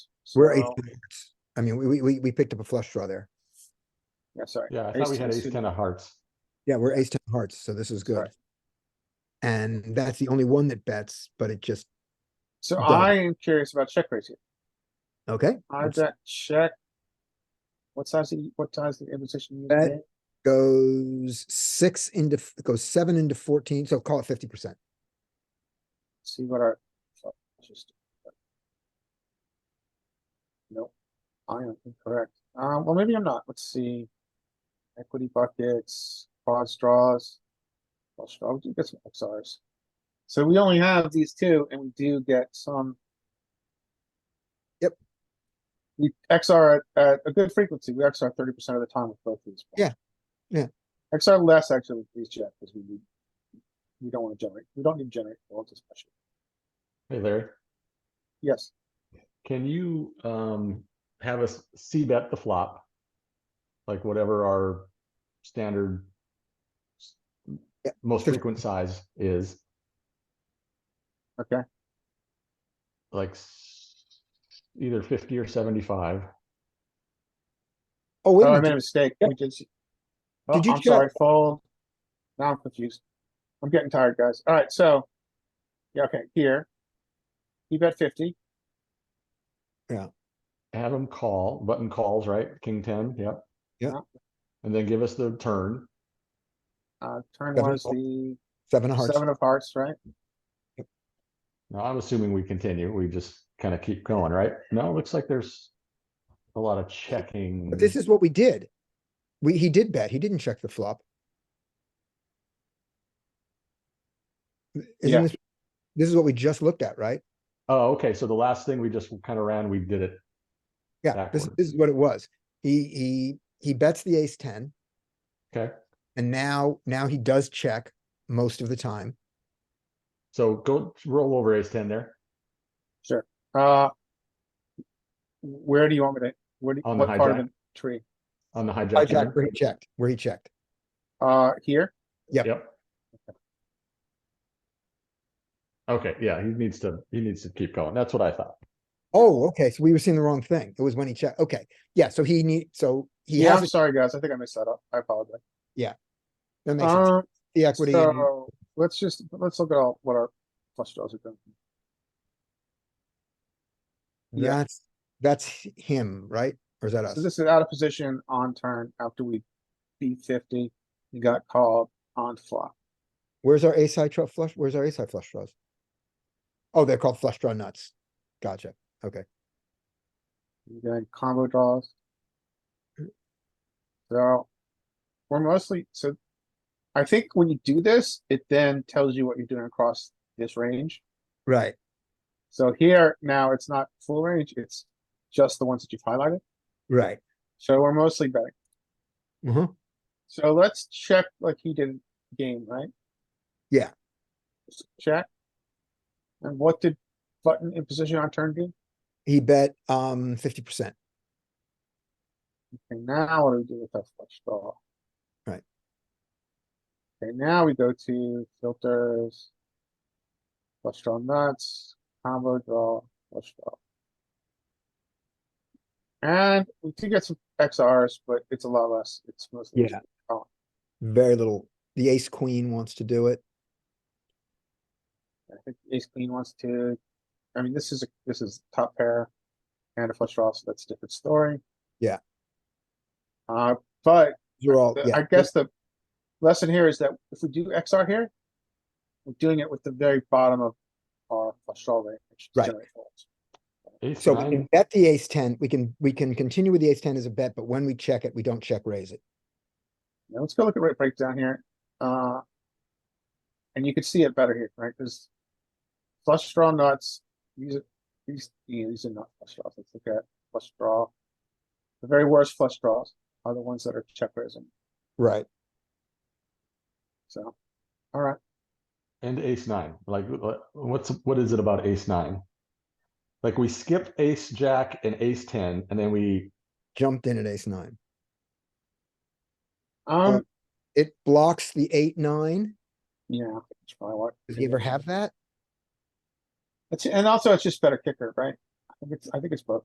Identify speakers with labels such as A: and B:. A: We're ace,
B: So-
A: ten of hearts. I mean, we, we- we, we picked up a flush draw there.
B: Yeah, sorry.
C: Yeah, I thought we had
B: Ace-ten
C: ace ten of hearts.
A: Yeah, we're ace ten of hearts, so this is good.
B: Right.
A: And that's the only one that bets, but it just,
B: So
A: Done.
B: I am curious about check raise here.
A: okay, let's-
B: Hijack, check. What size, the- what size the imposition?
A: Bet. goes six into, f- goes seven into fourteen, so call it fifty percent.
B: See what our. so, just- uh, Nope, I am incorrect. Um, well, maybe I'm not. Let's see. Equity buckets, quad straws. Well, straw, we do get some XRs. So we only have these two and we do get some.
A: Yep.
B: We XR at- at a good frequency. We XR thirty percent of the time with both these.
A: Yeah, yeah.
B: XR less actually with these jack because we need. We don't want to generate, we don't need to generate, we'll just push it.
C: Hey Larry,
B: Yes,
C: can you um have us C bet the flop? Like whatever our standard s-
A: Yeah,
C: most
A: sure.
C: frequent size is,
B: okay,
C: like s- either fifty or seventy-five.
A: Oh, wait
B: oh, I
A: a
B: made a
A: minute,
B: mistake,
A: Yeah.
B: we did. see- Oh,
A: Did you
B: I'm
A: check-
B: sorry, fold. Now I'm confused. I'm getting tired, guys. Alright, so. Yeah, okay, here. You bet fifty,
C: Have them call, button calls, right? King ten, yep.
A: Yeah.
C: And then give us the turn.
B: uh, turn
A: Seven
B: was
A: of-
B: the
A: seven of hearts.
B: seven of hearts, right?
C: Now, I'm assuming we continue. We just kind of keep going, right? No, it looks like there's a lot of checking.
A: But this is what we did. We, he did bet, he didn't check the flop.
B: Yeah.
A: Isn't this, this is what we just looked at, right?
C: Oh, okay, so the last thing we just kind of ran, we did it.
A: Yeah, this,
C: Backward.
A: this is what it was. He, he, he bets the ace ten.
C: Okay.
A: And now, now he does check most of the time.
C: So go roll over ace ten there
B: Uh. Where do you want me to, where do,
C: On the
B: what part of
C: hijack.
B: the tree?
C: on the hijack.
A: Hijack where
C: turn.
A: he checked, where he checked.
B: Uh, here,
A: Yep.
C: Yep. Okay, yeah, he needs to, he needs to keep going. That's what I thought.
A: Oh, okay, so we were seeing the wrong thing. It was when he checked, okay. Yeah, so he need, so he
B: yeah,
A: has,
B: I'm
A: it.
B: sorry, guys, I think I missed that up, I apologize.
A: that makes sense.
B: Um,
A: The equity. and-
B: so, let's just, let's look at all, what our flush draws are doing. Yeah.
A: That's, that's h- him, right? Or is that
B: So
A: us?
B: this is out of position on turn after we beat fifty, you got called on flop.
A: Where's our ace high tru- flush? Where's our ace high flush draws? Oh, they're called flush draw nuts. Gotcha.
B: You got combo draws. So, we're mostly, so I think when you do this, it then tells you what you're doing across this range.
A: Right.
B: So here now it's not full range, it's just the ones that you've highlighted.
A: Right.
B: So we're mostly betting. Mm-hmm.
A: Uh-huh.
B: So let's check like he did game, right?
A: Yeah.
B: Just Check. And what did button in position on turn do?
A: He bet, um, fifty percent.
B: Okay, now what do we do with that flush draw?
A: Right.
B: Okay, now we go to filters. Flush draw nuts, combo draw, flush draw. And we do get some XRs, but it's a lot less. It's mostly.
A: Yeah. Very little. The ace queen wants to do it.
B: I think ace queen wants to, I mean, this is, a this is top pair and a flush draw, so that's a different story.
A: Yeah.
B: Uh, but
A: You're all,
B: the-
A: yeah.
B: I guess the lesson here is that if we do XR here, we're doing it with the very bottom of our flush draw range. to
A: Right.
B: generate folds.
C: Ace
A: So we
C: nine,
A: can bet the ace ten, we can, we can continue with the ace ten as a bet, but when we check it, we don't check raise it.
B: Now, let's go look at rate breakdown here. Uh, and you can see it better here, right? Because flush draw nuts, these are, these, yeah, these are not flush draws. Let's look at flush draw. The very worst flush draws are the ones that are check raising.
A: Right.
B: So, all right.
C: and ace nine, like, what- what's, what is it about ace nine? Like, we skip ace, jack, and ace ten, and then we,
A: Jumped in at ace nine.
B: Um,
A: It blocks the eight, nine.
B: yeah, that's probably what.
A: Does he ever have that?
B: It's, and also it's just better kicker, right? I think it's, I think it's both.